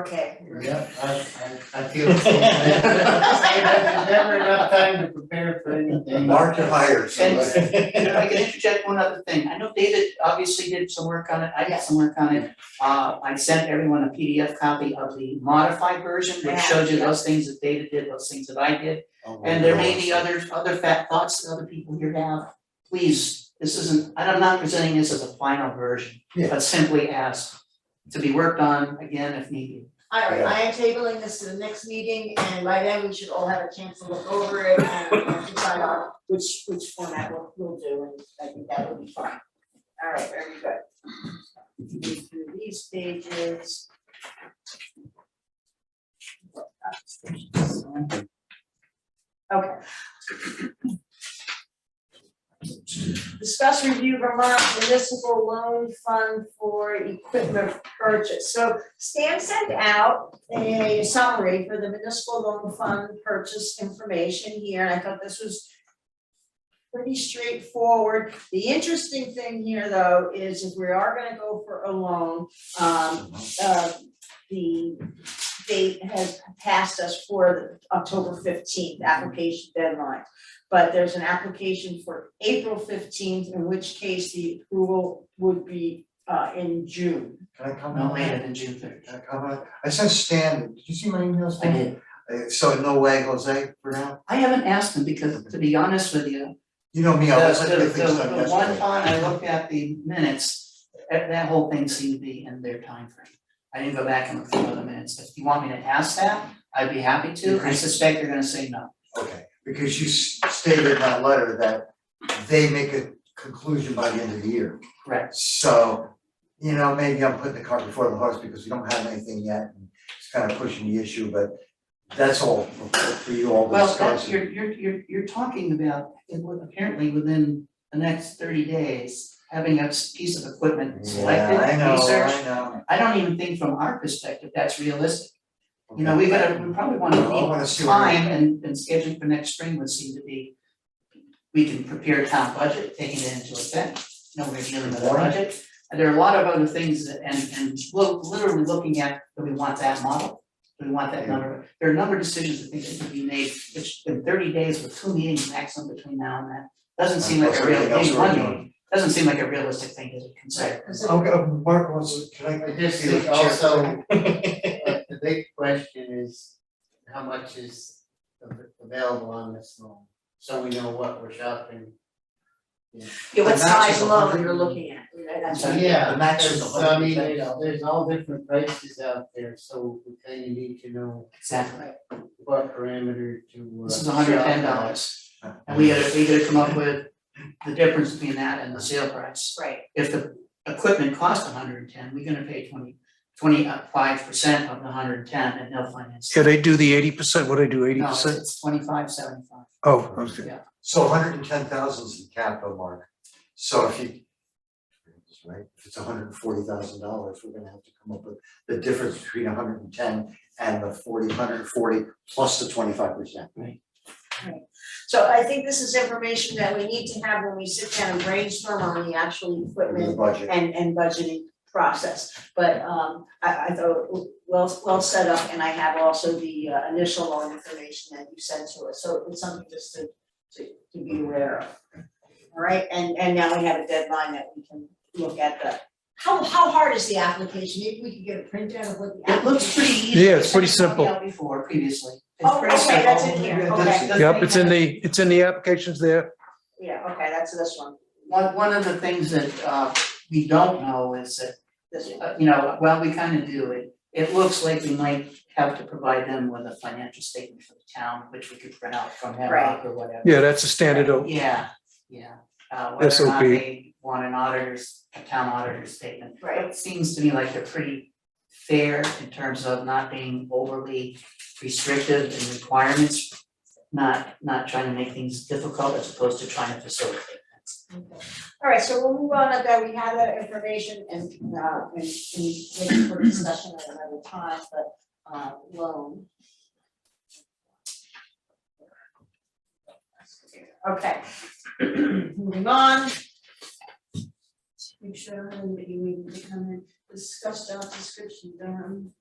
okay. Yeah, I, I, I feel the same. There's never enough time to prepare for anything. Mark to hire, so And- that- And if I can interject one other thing, I know David obviously did some work on it, I did some work on it. Uh, I sent everyone a PDF copy of the modified version, Yeah. which showed you those things that David did, those things that I did. And there may be other, other fat thoughts that other people here have, please, this isn't, I'm not presenting this as a final version, Yeah. but simply ask to be worked on again if needed. All right, Yeah. I am tabling this to the next meeting and by then we should all have a chance to look over it and and decide on which which format we'll we'll do and I think that will be fine. All right, very good. Move through these pages. Okay. Discuss review Vermont municipal loan fund for equipment purchase. So Stan sent out a summary for the municipal loan fund purchase information here, and I thought this was pretty straightforward. The interesting thing here, though, is if we are gonna go for a loan, um, uh, the date has passed us for the October fifteenth application deadline. But there's an application for April fifteenth, in which case the approval would be, uh, in June. Can I come No on later in? than June third. Can I come on? I sent Stan, did you see my email, Stan? Uh, So no way Jose for now? I haven't asked him because, to be honest with you, You know me, The, I always like to the, get things the, done the one yesterday. time I looked at the minutes, that, that whole thing seemed to be in their time frame. I didn't go back and look through the minutes, if you want me to ask that, I'd be happy to, I suspect you're gonna say no. Okay, because you s- stated in that letter that they make a conclusion by the end of the year. Correct. So, you know, maybe I'm putting the cart before the horse because we don't have anything yet and it's kind of pushing the issue, but that's all for for you all to Well, discuss. that's, you're, you're, you're, you're talking about, it would apparently within the next thirty days, having a s- piece of equipment selected, Yeah, I know, researched. I know. I don't even think from our perspective, that's realistic, you know, we gotta, we probably wanna Well, I need wanna see where- time and and scheduling for next spring would seem to be. We can prepare town budget, taking it into effect, no, we're dealing with a budget, and there are a lot of other things that and and look, literally looking at, do we want that model? Do we want that number, there are a number of decisions I think that could be made, which in thirty days with two meetings maximum between now and then. Doesn't seem like a Plus real, everything else maybe we're one doing. meeting, doesn't seem like a realistic thing to consider. Okay, uh, Mark wants, to- can I? I just be think the chair? also, uh, the big question is, how much is av- available on this loan? So we know what we're shopping. Yeah, what The match is size a loan hundred you're and- looking at, you know, that's So, right. Yeah, The max is there's- a so I hundred mean, thousand. there's, there's all different prices out there, so we kind of need to know Exactly. what parameter to. uh, This is hundred ten shop at. dollars. And we gotta, we gotta come up with the difference between that and the sale price. Right, If the equipment costs hundred and ten, we're gonna pay twenty, twenty-five percent of the hundred and ten and they'll finance. it. Yeah, they do the eighty percent, what do they do, eighty No, it's- percent? it's twenty-five, seventy-five. Oh, okay. So hundred and ten thousand is the capital mark, so if you. Right, if it's hundred and forty thousand dollars, we're gonna have to come up with the difference between hundred and ten and the forty, hundred and forty plus the twenty-five percent. so I think this is information that we need to have when we sit down and brainstorm on the actual With the equipment budget, and and budgeting process. But um I I thought it well well set up and I have also the uh, initial loan information that you sent to us, so it's something just to to to be aware of. All right, and and now we have a deadline that we can look at the, how how hard is the application? Maybe we could get a printout of what the It application. looks pretty easy. Yeah, it's pretty Something simple. out Before, previously. It's Oh, pretty okay, that's simple. in here, Yeah, that's okay, The Yep, thing it's in that- the, it's in the applications there. yeah, okay, that's this one, One, one of the things that, uh, we don't know is that this one. Uh, you know, well, we kind of do it. It looks like we might have to provide them with a financial statement for the town, which we could print out from Hemlock or whatever. Yeah, that's a standard, oh, o- Yeah, yeah. Uh, whether or not SOP. they want an auditor's, a town auditor's statement. Right. It seems to me like they're pretty fair in terms of not being overly restrictive in requirements, not, not trying to make things difficult as opposed to trying to facilitate. All right, so we'll move on, to that we have that information and, uh, and, and wait for discussion at another time, but, uh, loan. Okay. Moving on. Make sure, I'm gonna be waiting to come in, discuss job description, um.